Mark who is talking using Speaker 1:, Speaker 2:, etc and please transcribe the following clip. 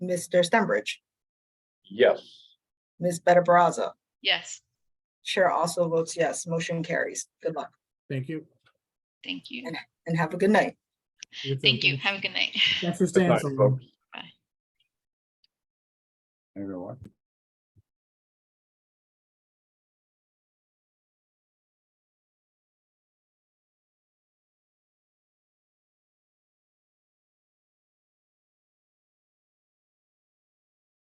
Speaker 1: Mr. Stenbridge,
Speaker 2: Yes.
Speaker 1: Ms. Better Brazza.
Speaker 3: Yes,
Speaker 1: Chair also votes yes. Motion carries. Good luck
Speaker 4: Thank you.
Speaker 3: thank you.
Speaker 1: And- and have a good night.
Speaker 4: You too.
Speaker 3: Thank you.
Speaker 4: Thanks-
Speaker 3: Have a good night.
Speaker 4: Thanks for
Speaker 2: Good
Speaker 4: staying
Speaker 2: night,
Speaker 4: so long.
Speaker 2: folks.
Speaker 3: Bye.
Speaker 2: Everyone.